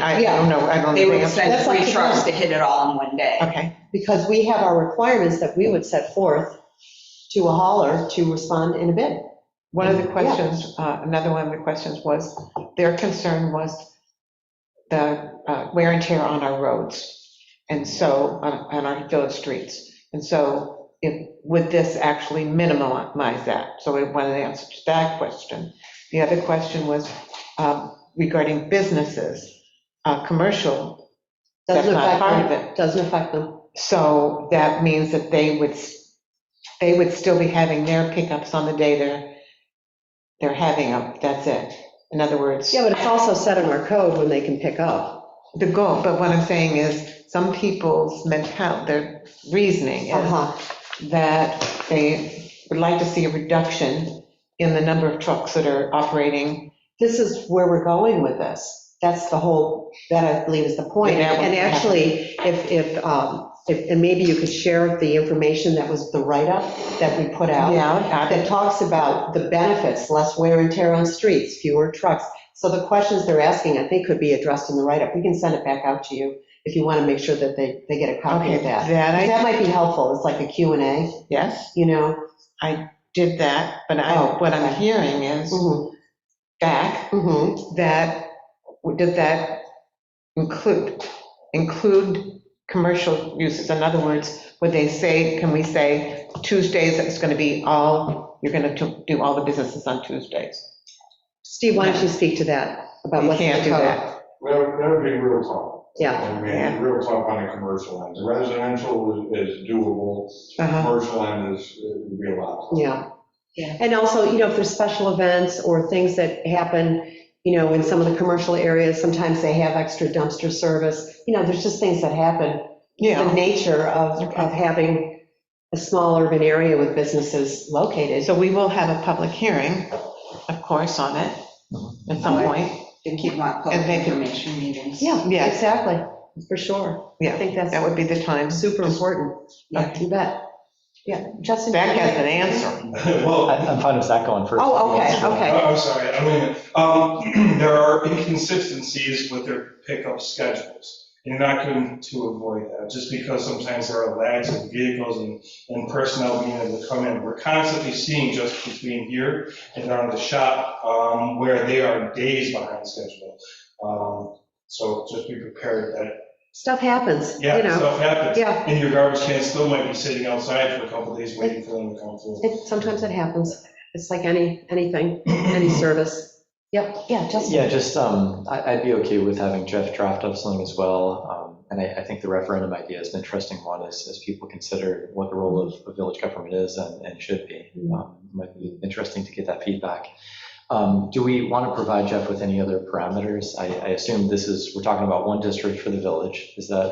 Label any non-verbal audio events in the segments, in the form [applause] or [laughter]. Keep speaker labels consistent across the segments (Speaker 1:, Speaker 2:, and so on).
Speaker 1: I don't know, I don't.
Speaker 2: They would
Speaker 1: think-
Speaker 2: send
Speaker 3: That's like
Speaker 2: three
Speaker 3: the
Speaker 2: trucks
Speaker 3: truck.
Speaker 2: to hit it all in one day.
Speaker 1: Okay,
Speaker 3: because we have our requirements that we would set forth to a hauler to respond in a bid.
Speaker 1: one of the
Speaker 3: Yeah.
Speaker 1: questions, uh, another one of the questions was, their concern was the uh, wear and tear on our roads, and so, on on our village streets. And so, if, would this actually minimize that? So we wanted an answer to that question. The other question was um, regarding businesses, uh, commercial, That's
Speaker 3: Doesn't
Speaker 1: not
Speaker 3: affect
Speaker 1: part
Speaker 3: them.
Speaker 1: of it.
Speaker 3: Doesn't affect them.
Speaker 1: so that means that they would, they would still be having their pickups on the day they're, they're having them, that's it. In other words.
Speaker 3: Yeah, but it's also set in our code when they can pick up.
Speaker 1: the goal, but what I'm saying is, some people's mental, their reasoning is
Speaker 3: Uh-huh.
Speaker 1: that they would like to see a reduction in the number of trucks that are operating.
Speaker 3: This is where we're going with this. That's the whole, that I believe is the point.
Speaker 1: Yeah, that
Speaker 3: And
Speaker 1: would-
Speaker 3: actually, if, if, um, if- and maybe you could share the information that was the write-up that we put out.
Speaker 1: Yeah,
Speaker 3: that talks about the benefits, less wear and tear on streets, fewer trucks. So the questions they're asking, I think, could be addressed in the write-up. We can send it back out to you if you want to make sure that they, they get a copy
Speaker 1: okay,
Speaker 3: of that.
Speaker 1: that
Speaker 3: That might be helpful. It's like a Q and A,
Speaker 1: I, yes,
Speaker 3: you know?
Speaker 1: did that, but I,
Speaker 3: Oh,
Speaker 1: what I'm
Speaker 3: okay.
Speaker 1: hearing is
Speaker 3: Mhm,
Speaker 1: back
Speaker 3: mhm.
Speaker 1: that, does that include, include commercial uses? In other words, would they say, can we say Tuesdays, it's going to be all, you're going to do all the businesses on Tuesdays?
Speaker 3: Steve, why don't you speak to that, about
Speaker 1: You
Speaker 3: what's in the
Speaker 1: can't do
Speaker 3: code?
Speaker 1: that.
Speaker 4: That would, that would be real tough.
Speaker 3: Yeah,
Speaker 4: I
Speaker 1: Yeah.
Speaker 4: mean, real tough on a commercial end. The Residential is is doable,
Speaker 1: Uh-huh.
Speaker 4: commercial end is, it would be a lot.
Speaker 3: yeah.
Speaker 2: Yeah.
Speaker 3: And also, you know, if there's special events or things that happen, you know, in some of the commercial areas, sometimes they have extra dumpster service. You know, there's just things that happen the
Speaker 1: Yeah,
Speaker 3: nature of,
Speaker 1: Okay.
Speaker 3: of having a small urban area with businesses located.
Speaker 1: so we will have a public hearing, of course, on it at some point.
Speaker 2: They keep on public
Speaker 1: And they can-
Speaker 2: information meetings.
Speaker 1: Yeah.
Speaker 3: Exactly, for sure. I
Speaker 1: Yeah,
Speaker 3: think
Speaker 1: that
Speaker 3: that's
Speaker 1: would be the time.
Speaker 3: super important. Yeah,
Speaker 1: Okay.
Speaker 3: you bet. Yeah, Justin.
Speaker 1: Zach has an answer.
Speaker 5: [laughs] I-
Speaker 4: Well,
Speaker 5: I'm fine with that going first.
Speaker 3: Oh, okay, okay.
Speaker 6: uh, I'm sorry, I'm leaving. Um, [clears throat] There are inconsistencies with their pickup schedules. and You're not going to avoid that, just because sometimes there are lags of vehicles and- and personnel being able to come in. We're constantly seeing just between here and down to the shop um, where they are days behind schedule. Um, So just be prepared that,
Speaker 3: Stuff happens, you
Speaker 6: yeah,
Speaker 3: know.
Speaker 6: stuff happens.
Speaker 3: Yeah,
Speaker 6: And your garbage can still might be sitting outside for a couple days waiting for them to come through.
Speaker 3: it, sometimes it happens. It's like any, anything, any service. Yep, yeah, Justin.
Speaker 5: Yeah, just, um, I- I'd be okay with having Jeff draft up something as well. Um, And I I think the referendum idea is an interesting one as as people consider what the role of of village government is and and should be. Um, it Might be interesting to get that feedback. Um, Do we want to provide Jeff with any other parameters? I I assume this is, we're talking about one district for the village. Is that,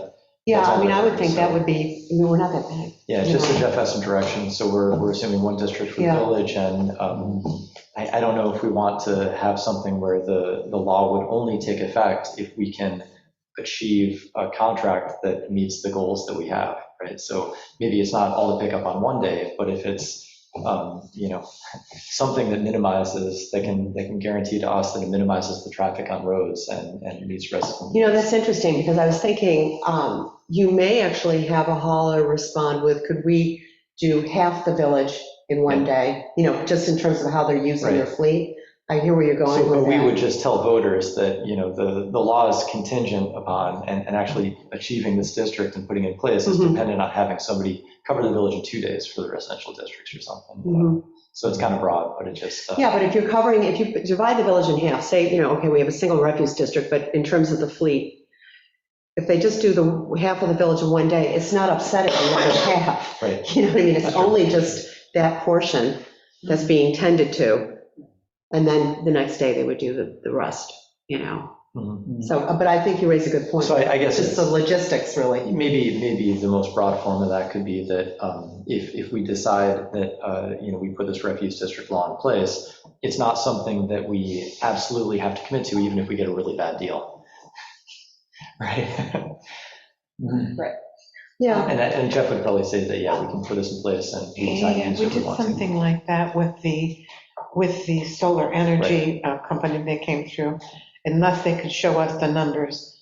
Speaker 3: Yeah, I mean, I would think that would be, I mean, we're not that big.
Speaker 5: yeah, it's just so Jeff has some direction. So we're we're assuming one district for the
Speaker 3: Yeah.
Speaker 5: village. And um, I I don't know if we want to have something where the the law would only take effect if we can achieve a contract that meets the goals that we have, right? So maybe it's not all to pick up on one day, but if it's, um, you know, [laughs] something that minimizes, that can, that can guarantee to us that it minimizes the traffic on roads and, and meets residents.
Speaker 3: You know, that's interesting, because I was thinking, um, you may actually have a hauler respond with, could we do half the village in one day? You know, just in terms of how they're using their fleet. I hear where you're going
Speaker 5: So, but
Speaker 3: with
Speaker 5: we would
Speaker 3: that.
Speaker 5: just tell voters that, you know, the, the law is contingent upon, and, and actually achieving this district and putting it in place is
Speaker 3: Mhm.
Speaker 5: dependent on having somebody cover the village in two days for the residential districts or something.
Speaker 3: Mhm.
Speaker 5: So it's kind of broad, but it just. uh,
Speaker 3: Yeah, but if you're covering, if you divide the village in half, say, you know, okay, we have a single refuse district, but in terms of the fleet, if they just do the half of the village in one day, it's not upsetting the other half.
Speaker 5: Right.
Speaker 3: [laughs] You know what I mean? It's only just that portion that's being tended to. And then the next day, they would do the, the rest, you know?
Speaker 5: Mhm.
Speaker 3: So, uh, but I think you raise a good point.
Speaker 5: So I I guess.
Speaker 3: It's just
Speaker 5: it's-
Speaker 3: the logistics, really.
Speaker 5: Maybe, maybe the most broad form of that could be that um, if, if we decide that, uh, you know, we put this refuse district law in place, it's not something that we absolutely have to commit to, even if we get a really bad deal. [laughs] Right? And,
Speaker 3: Yeah,
Speaker 5: I- and Jeff would probably say that, yeah, we can put this in place and we decide to
Speaker 1: Yeah,
Speaker 5: use
Speaker 1: we
Speaker 5: it if we
Speaker 1: did
Speaker 5: want to.
Speaker 1: something like that with the, with the solar energy uh, company that came through. Unless they could show us the numbers